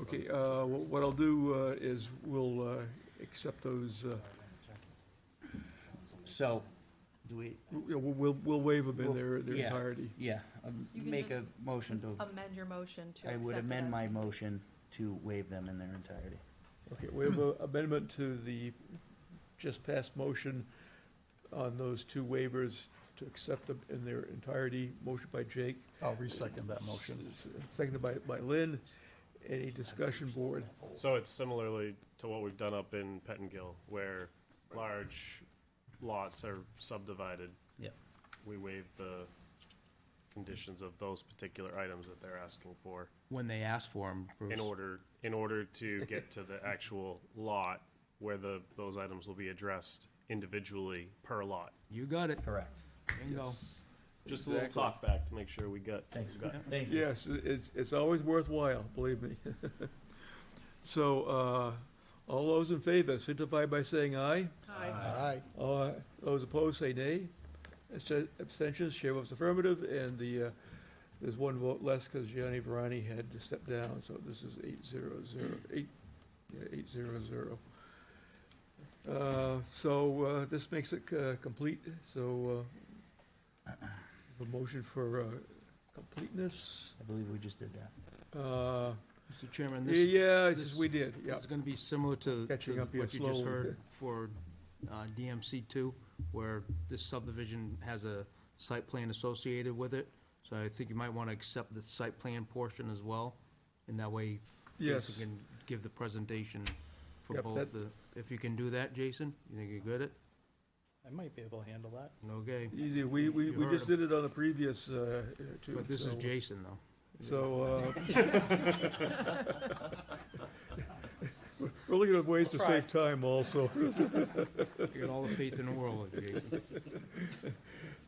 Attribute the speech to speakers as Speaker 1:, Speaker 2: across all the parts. Speaker 1: Okay, uh, wh- what I'll do uh, is we'll uh, accept those, uh,
Speaker 2: So, do we,
Speaker 1: w- you know, we'll, we'll waive them in their, their
Speaker 2: Yeah.
Speaker 1: entirety.
Speaker 2: yeah, um,
Speaker 3: You can
Speaker 2: make a
Speaker 3: just
Speaker 2: motion to,
Speaker 3: amend your motion to
Speaker 2: I would
Speaker 3: accept it
Speaker 2: amend
Speaker 3: as-
Speaker 2: my motion to waive them in their entirety.
Speaker 1: Okay, we have an amendment to the just passed motion on those two waivers to accept them in their entirety. Motion by Jake.
Speaker 4: I'll resecond that motion.
Speaker 1: s- Seconded by, by Lynn. Any discussion, board?
Speaker 5: So it's similarly to what we've done up in Pettingill, where large lots are subdivided.
Speaker 2: Yep.
Speaker 5: We waive the conditions of those particular items that they're asking for
Speaker 6: when they ask for them, Bruce.
Speaker 5: in order, in order to get to the actual lot where the, those items will be addressed individually per lot.
Speaker 6: You got it.
Speaker 2: Correct.
Speaker 6: Bingo.
Speaker 5: Just a little
Speaker 1: Exactly.
Speaker 5: talk back to make sure we got.
Speaker 2: Thanks.
Speaker 5: got-
Speaker 2: Thank you.
Speaker 1: Yes, i- it's, it's always worthwhile, believe me. So, uh, all those in favor signify by saying aye.
Speaker 4: Aye.
Speaker 1: Uh, Those opposed, say nay. Abst- Abstentions, chair votes affirmative, and the, uh, there's one vote less because Gianni Verani had to step down, so this is eight zero zero, eight, yeah, eight zero zero. Uh, So uh, this makes it uh, complete, so uh, the motion for uh, completeness.
Speaker 2: I believe we just did that.
Speaker 1: uh,
Speaker 6: Mr. Chairman, this
Speaker 1: Yeah, this is-
Speaker 6: this-
Speaker 1: we did, yeah.
Speaker 6: is gonna be similar to
Speaker 1: Catching
Speaker 6: to
Speaker 1: up here
Speaker 6: what you just
Speaker 1: slowly.
Speaker 6: heard for uh, DMC two, where this subdivision has a site plan associated with it. So I think you might wanna accept the site plan portion as well, and that way Jason
Speaker 1: Yes,
Speaker 6: can give the presentation for
Speaker 1: Yep,
Speaker 6: both
Speaker 1: that-
Speaker 6: the, if you can do that, Jason, you think you're good at it?
Speaker 4: I might be able to handle that.
Speaker 6: Okay,
Speaker 1: easy. we, we
Speaker 6: You
Speaker 1: we
Speaker 6: heard
Speaker 1: just did it on the previous, uh, two.
Speaker 6: but this is
Speaker 1: so-
Speaker 6: Jason though.
Speaker 1: So, uh, we're looking at ways to save time also.
Speaker 6: You got all the faith in the world, Jason.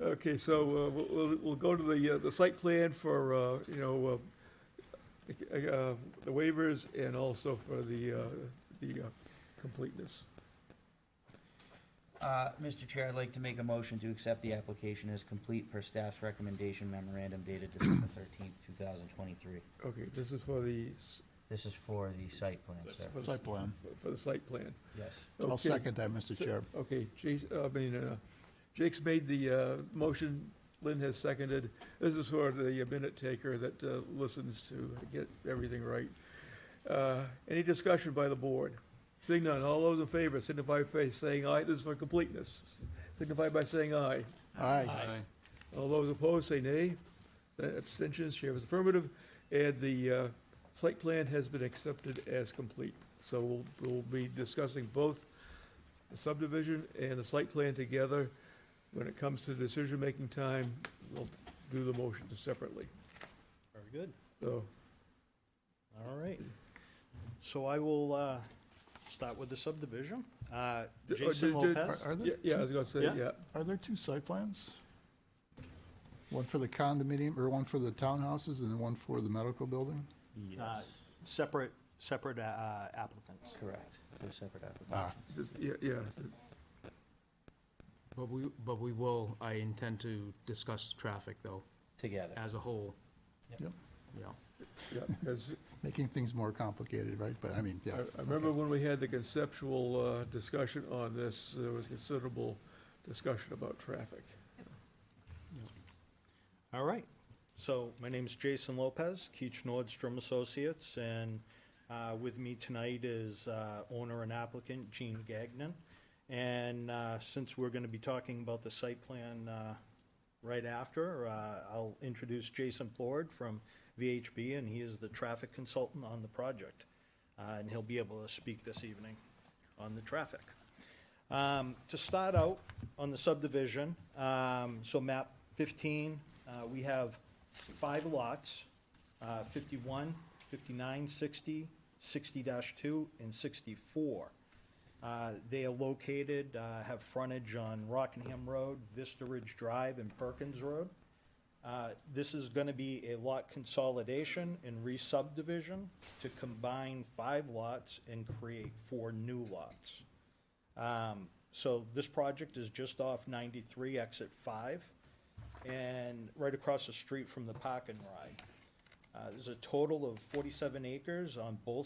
Speaker 1: Okay, so uh, we'll, we'll- we'll go to the, uh, the site plan for, uh, you know, uh, uh, the waivers and also for the, uh, the uh, completeness.
Speaker 2: Uh, Mr. Chair, I'd like to make a motion to accept the application as complete per staff's recommendation memorandum dated December thirteenth, two thousand twenty-three.
Speaker 1: Okay, this is for the, s-
Speaker 2: This is for the site plan, sir.
Speaker 1: for the,
Speaker 4: Site plan.
Speaker 1: for the site plan.
Speaker 2: Yes.
Speaker 1: Okay.
Speaker 4: I'll second that, Mr.
Speaker 1: So-
Speaker 4: Chair.
Speaker 1: Okay, Jason, I mean, uh, Jake's made the uh, motion, Lynn has seconded. This is for the minute taker that uh, listens to get everything right. Uh, Any discussion by the board? Seeing none, all those in favor signify by saying aye. This is for completeness. Signify by saying aye.
Speaker 4: Aye.
Speaker 1: All those opposed, say nay. Abstentions, chair is affirmative. And the uh, site plan has been accepted as complete. So we'll, we'll be discussing both the subdivision and the site plan together. When it comes to decision-making time, we'll do the motions separately.
Speaker 4: Very good.
Speaker 1: So,
Speaker 4: All right. So I will uh, start with the subdivision. Uh,
Speaker 1: D- uh,
Speaker 4: Jason
Speaker 1: d- d-
Speaker 4: Lopez?
Speaker 7: Are
Speaker 1: yeah,
Speaker 7: there,
Speaker 1: yeah, I was gonna say,
Speaker 4: Yeah.
Speaker 1: yeah.
Speaker 7: are there two site plans? One for the condominium, or one for the townhouses, and one for the medical building?
Speaker 2: Yes,
Speaker 4: Separate, separate uh, applicants.
Speaker 2: correct. They're separate applications.
Speaker 7: Ah,
Speaker 1: Just- Yeah, yeah,
Speaker 6: But we, but we will, I intend to discuss traffic though,
Speaker 2: Together.
Speaker 6: as a whole.
Speaker 7: Yep.
Speaker 6: Yeah.
Speaker 1: yeah, 'cause
Speaker 7: making things more complicated, right? But I mean, yeah.
Speaker 1: I I remember when we had the conceptual uh, discussion on this, there was considerable discussion about traffic.
Speaker 4: All right. So my name is Jason Lopez, Keach Nordstrom Associates, and uh, with me tonight is uh, owner and applicant Gene Gagnon. And uh, since we're going to be talking about the site plan uh, right after, uh, I'll introduce Jason Plord from VHB, and he is the traffic consultant on the project. Uh, And he'll be able to speak this evening on the traffic. Um, To start out on the subdivision, um, so map 15, uh, we have five lots, uh, 51, 59, 60, 60-2, and 64. Uh, They are located, uh, have frontage on Rockingham Road, Vista Ridge Drive, and Perkins Road. Uh, This is going to be a lot consolidation and re-subdivision to combine five lots and create four new lots. Um, So this project is just off 93 exit 5 and right across the street from the park and ride. Uh, There's a total of 47 acres on both